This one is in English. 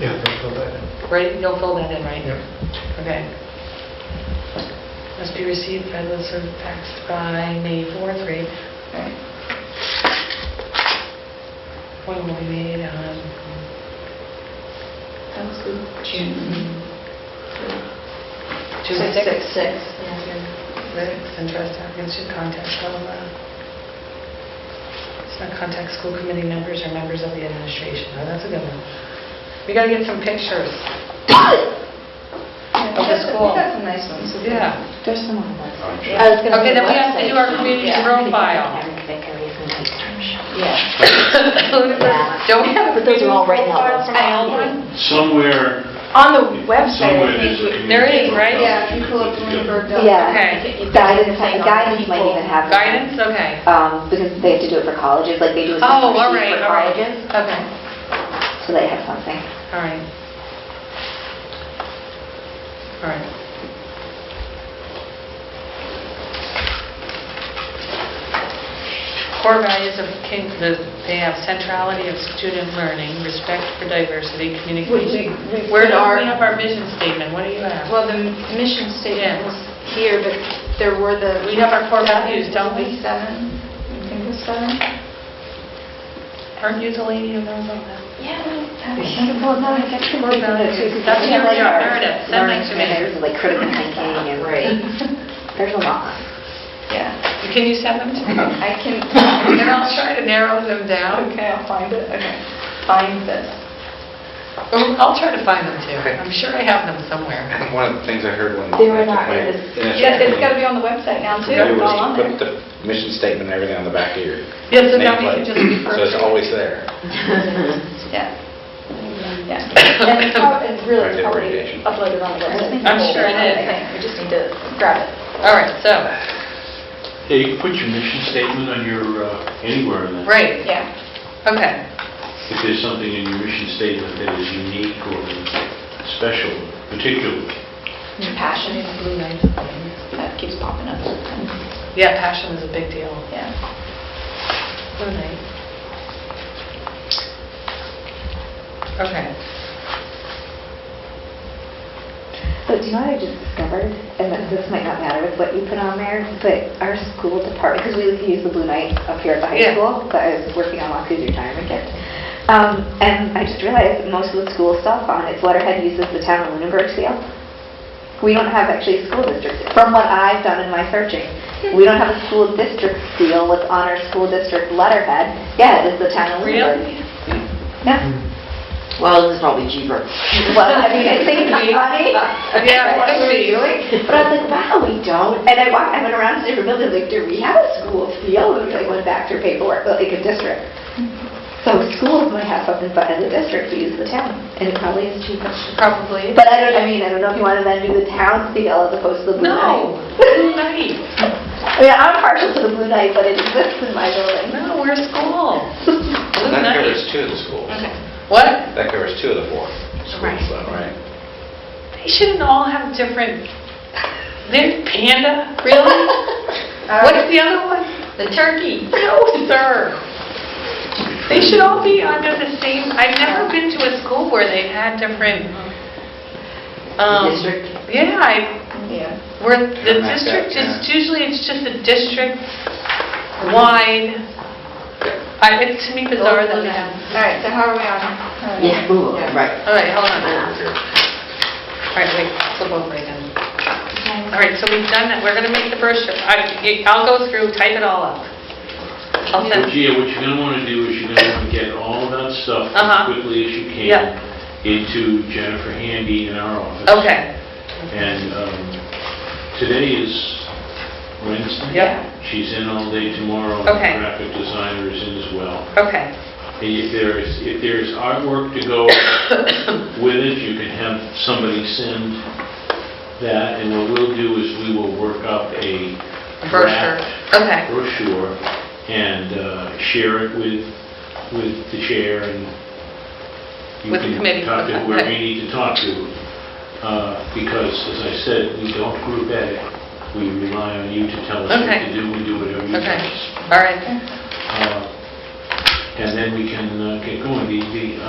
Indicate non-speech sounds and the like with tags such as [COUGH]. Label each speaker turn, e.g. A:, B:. A: Yeah, don't fill that in.
B: Right, you'll fill that in, right?
A: Yep.
B: Okay. Must be received by the served tax by May 4th, right? When will be made on,
C: That was good. June.
B: June 6th?
C: Six, six, yeah.
B: That's interesting, I should contact all the, it's not contact school committee members or members of the administration, oh, that's a good one. We gotta get some pictures.
C: Yeah,
B: Of the
C: that's-
B: school.
C: We got some nice ones.
B: Yeah.
D: [LAUGHS]
C: There's some on the website.
E: sure.
D: I was gonna
B: Okay,
D: say
B: then we have to do our
D: website.
B: community
C: Yeah.
B: profile.
C: Yeah.
B: Don't we have a
D: But those are all right now.
B: profile from
D: I-
B: all one?
E: Somewhere,
D: On the website, I
E: somewhere there's a
D: think,
E: community.
B: There is, right?
C: Yeah, if you pull up Bloomberg.
D: we-
C: dot-
D: yeah,
B: Okay.
D: guidance, guidance might even have. that.
B: Guidance, okay.
D: Um, because they have to do it for colleges, like they do a
B: Oh, all
D: spreadsheet
B: right,
D: for
B: all right.
D: colleges,
B: Okay,
D: so they have something.
B: all right. All right. Core values of King, the- they have centrality of student learning, respect for diversity, communication. Where do we have our mission statement? What do you have?
C: Well, the mission
B: Yeah.
C: statement was here, but there were the...
B: We have our core values, don't we?
C: Seven, I think it was seven.
B: Aren't you the lady who knows all that?
C: Yeah.
D: Well, no, I guess the
B: Core values. That's your job. There it is. Send that to me.
D: There's like critical thinking and. There's a lot.
C: Yeah,
B: Can you send them to me?
C: [LAUGHS] I can,
B: And then I'll try to narrow them down.
C: okay, I'll find it, okay. Find this.
B: Oh, I'll try to find them too. I'm sure I have them somewhere.
F: [LAUGHS] One of the things I heard when.
D: They were not in this-
C: Yeah, it's got to be on the website now, too,
F: They
C: it's all on
F: was
C: there.
F: put the mission statement and everything on the back of your.
B: Yeah, so now we can
F: nameplate.
B: just refer
F: So it's
B: to it.
F: always there.
C: Yeah. Yeah. And it's prob- it's
F: Right,
C: really
F: the
C: probably
F: radiation.
C: uploaded on the website.
B: I'm sure it is.
C: We just need to grab it.
B: All right, so,
E: Yeah, you can put your mission statement on your, uh, anywhere in that.
B: right,
C: Yeah.
B: okay.
E: If there's something in your mission statement that is unique or special, particular.
C: Passion
B: Passion
C: is,
B: is blue light.
C: that keeps popping up.
B: Yeah, passion is a big deal.
C: [LAUGHS] Yeah.
B: Blue light. Okay.
D: But do you know what I just discovered? And that this might not matter with what you put on there, but our school department, because we use the Blue Knight up here at the high
B: Yeah.
D: school, but I was working on Waku's retirement gift. Um, and I just realized that most of the school stuff on its letterhead uses the town of Lunenburg seal. We don't have actually school districts. From what I've done in my searching,
B: Hmm.
D: we don't have a school district seal with on our school district letterhead. Yeah, it is the town of Lunenburg.
B: Really?
D: Yeah.
G: Well, this is probably cheaper.
D: Well, I mean, I
G: [LAUGHS]
D: think we,
B: Yeah,
D: yeah, what
B: could
D: we
B: be.
D: were doing. But I was like, wow, we don't. And I walked, I went around to different buildings, like, do we have a school field? And I went back through paperwork, but like a district. So schools might have something, but as a district, we use the town, and it probably is cheaper.
B: Probably.
D: But I don't, I mean, I don't know if you want to then do the town seal as opposed to the Blue Knight. [LAUGHS]
B: No, blue light.
D: I mean, I'm partial to the Blue Knight, but it exists in my building. [LAUGHS]
B: No, we're school. Blue
F: That covers
B: light.
F: two of the schools.
B: What?
F: That covers two of the four
B: Right.
F: schools, though, right?
B: They shouldn't all have different, They're panda, really? What's the other one?
C: The turkey.
B: No, sir. They should all be under the same, I've never been to a school where they had different, um...
G: District?
B: Yeah, I-
C: Yeah.
B: where the
F: Kinda like
B: district
F: that,
B: is, usually it's just a district-wide, I- it's to me bizarre that we have...
C: All right, so how are we on? How are we
G: Yeah,
C: on?
G: move
C: Yeah.
G: on, right.
B: All right, hold on.
G: Uh,
B: All right, wait, flip over again. All right, so we've done that, we're gonna make the brochure, I- I'll go through, type it all up. I'll send...
E: But yeah, what you're going to want to do is you're going to want to get all that stuff as
B: Uh-huh.
E: quickly as you
B: Yeah.
E: can into Jennifer Handy in our office.
B: Okay,
E: And um, today is Wednesday.
B: Yep.
E: She's in all day tomorrow.
B: Okay.
E: The Graphic designer is in as well.
B: okay,
E: And if there's, if there's artwork to go with it, you can have somebody send that, and what we'll do is we will work up a
B: brochure,
E: draft
B: okay.
E: brochure and uh, share it with, with the chair and you
B: With the committee.
E: can talk to whoever
B: Okay.
E: you need to talk to. Uh, Because, as I said, we don't group edit. We rely on you to tell us what
B: Okay.
E: to do. We do whatever you
B: [COUGHS] Okay.
E: tell us.
B: All right.
E: Uh, And then we can uh, get going. The, the